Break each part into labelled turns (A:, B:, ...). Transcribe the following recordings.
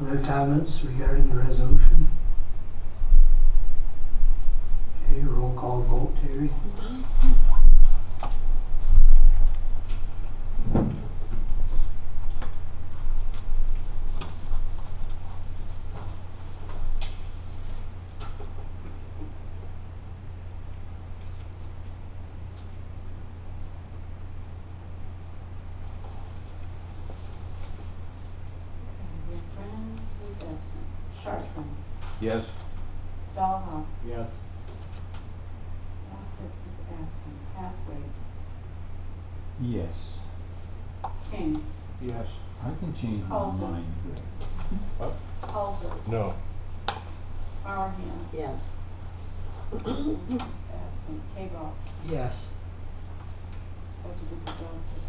A: Other comments regarding the resolution? Okay, roll call vote, Terry.
B: Okay, Brennan, who's absent? Chartran,
C: Yes.
B: Dahlhoff,
D: Yes.
B: Bassett is absent, Hathaway,
E: Yes,
B: King,
C: Yes.
E: I can change my
B: Colson.
E: mind.
B: Halsey,
C: No.
B: Barham,
F: Yes.
B: Williams is absent, Tabor,
A: Yes.
B: budget is adopted.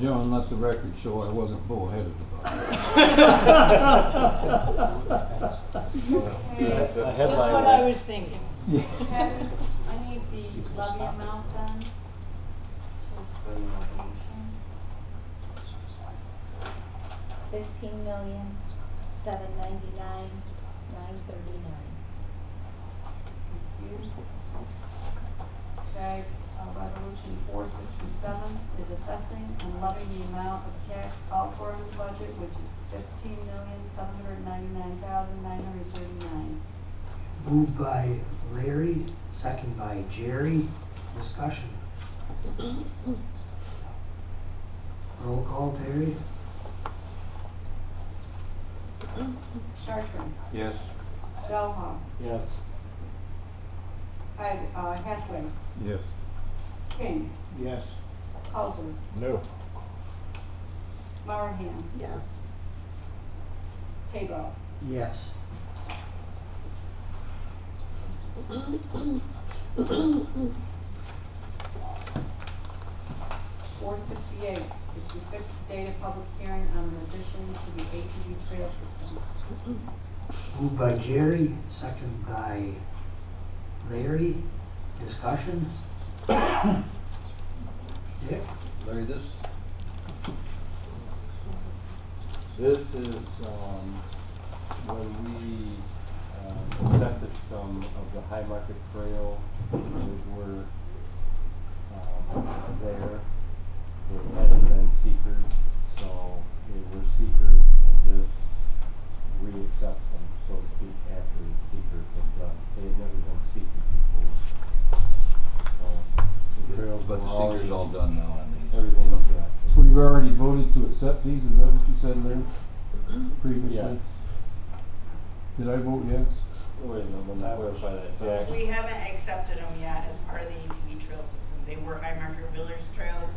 E: John, let the record show I wasn't bullheaded about it.
B: Okay,
D: A
G: Just what I was thinking.
B: Patty, I need the levy amount then, to, for the resolution.
H: fifteen million, seven ninety-nine, nine thirty-nine.
B: Confused. Okay, uh, resolution four sixty-seven is assessing and levying the amount of tax outflow in the budget, which is fifteen million, seven hundred ninety-nine thousand, nine hundred thirty-nine.
A: Moved by Larry, second by Jerry. Discussion. Roll call, Terry.
B: Chartran,
C: Yes.
B: Delha,
D: Yes.
B: I, uh, Hathaway,
E: Yes.
B: King,
C: Yes.
B: Halsey,
C: No.
B: Marahan,
F: Yes.
B: Tabor.
A: Yes.
B: Four sixty-eight is to fix the date of public hearing on an addition to the ATV trail system.
A: Moved by Jerry, second by Larry. Discussion. Dick?
C: Larry, this,
E: This is, um, when we, um, accepted some of the High Market Trail that were, um, there. They had been secret, so they were secret, and this re-accepts them, so to speak, after the secret had done. They had never been secret before. So, the trails were
C: but the
E: already-
C: secret's all done now on these.
E: Everything, yeah.
G: So we've already voted to accept these, is that what you said, Larry? Previously?
E: Yes.
G: Did I vote yes?
E: Wait, no, let me clarify that. Jack.
I: We haven't accepted them yet as part of the ATV trail system. They were High Marker Village trails,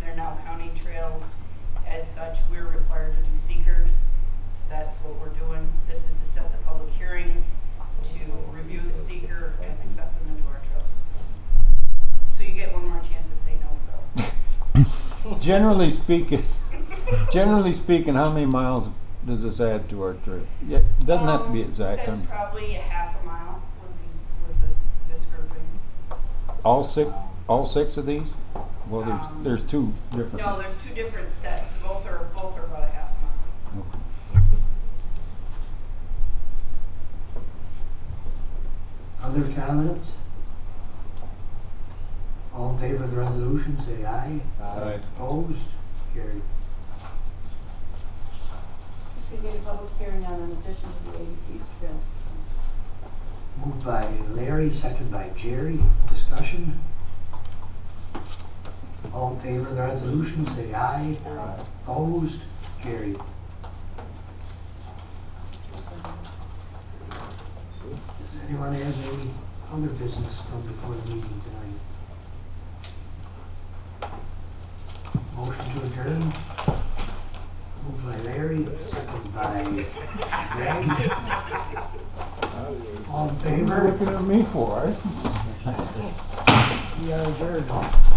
I: they're now county trails. As such, we're required to do seekers, so that's what we're doing. This is to set the public hearing to review the seeker and accept them into our trail system. So you get one more chance to say no,
E: Generally speaking, generally speaking, how many miles does this add to our trip? Yeah,
I: Phil.
E: doesn't have to be
I: Um,
E: exact.
I: That's
E: um,
I: probably a half a mile with these, with the, this grouping.
E: All six, all six of these? Well,
I: Um,
E: there's, there's two different.
I: No, there's two different sets, both are, both are about a half mile.
E: Okay.
A: Other comments? All in favor of the resolution, say aye.
E: Uh,
A: Opposed? Carried.
B: To get a public hearing on an addition to the ATV trail system.
A: Moved by Larry, second by Jerry. Discussion? All in favor of the resolution, say aye.
F: Aye.
A: Opposed? Carried. Does anyone have any other business from before the meeting tonight? Motion to adjourn? Moved by Larry, second by Greg. All in favor?
E: Looking at me for it.
A: We are adjourned.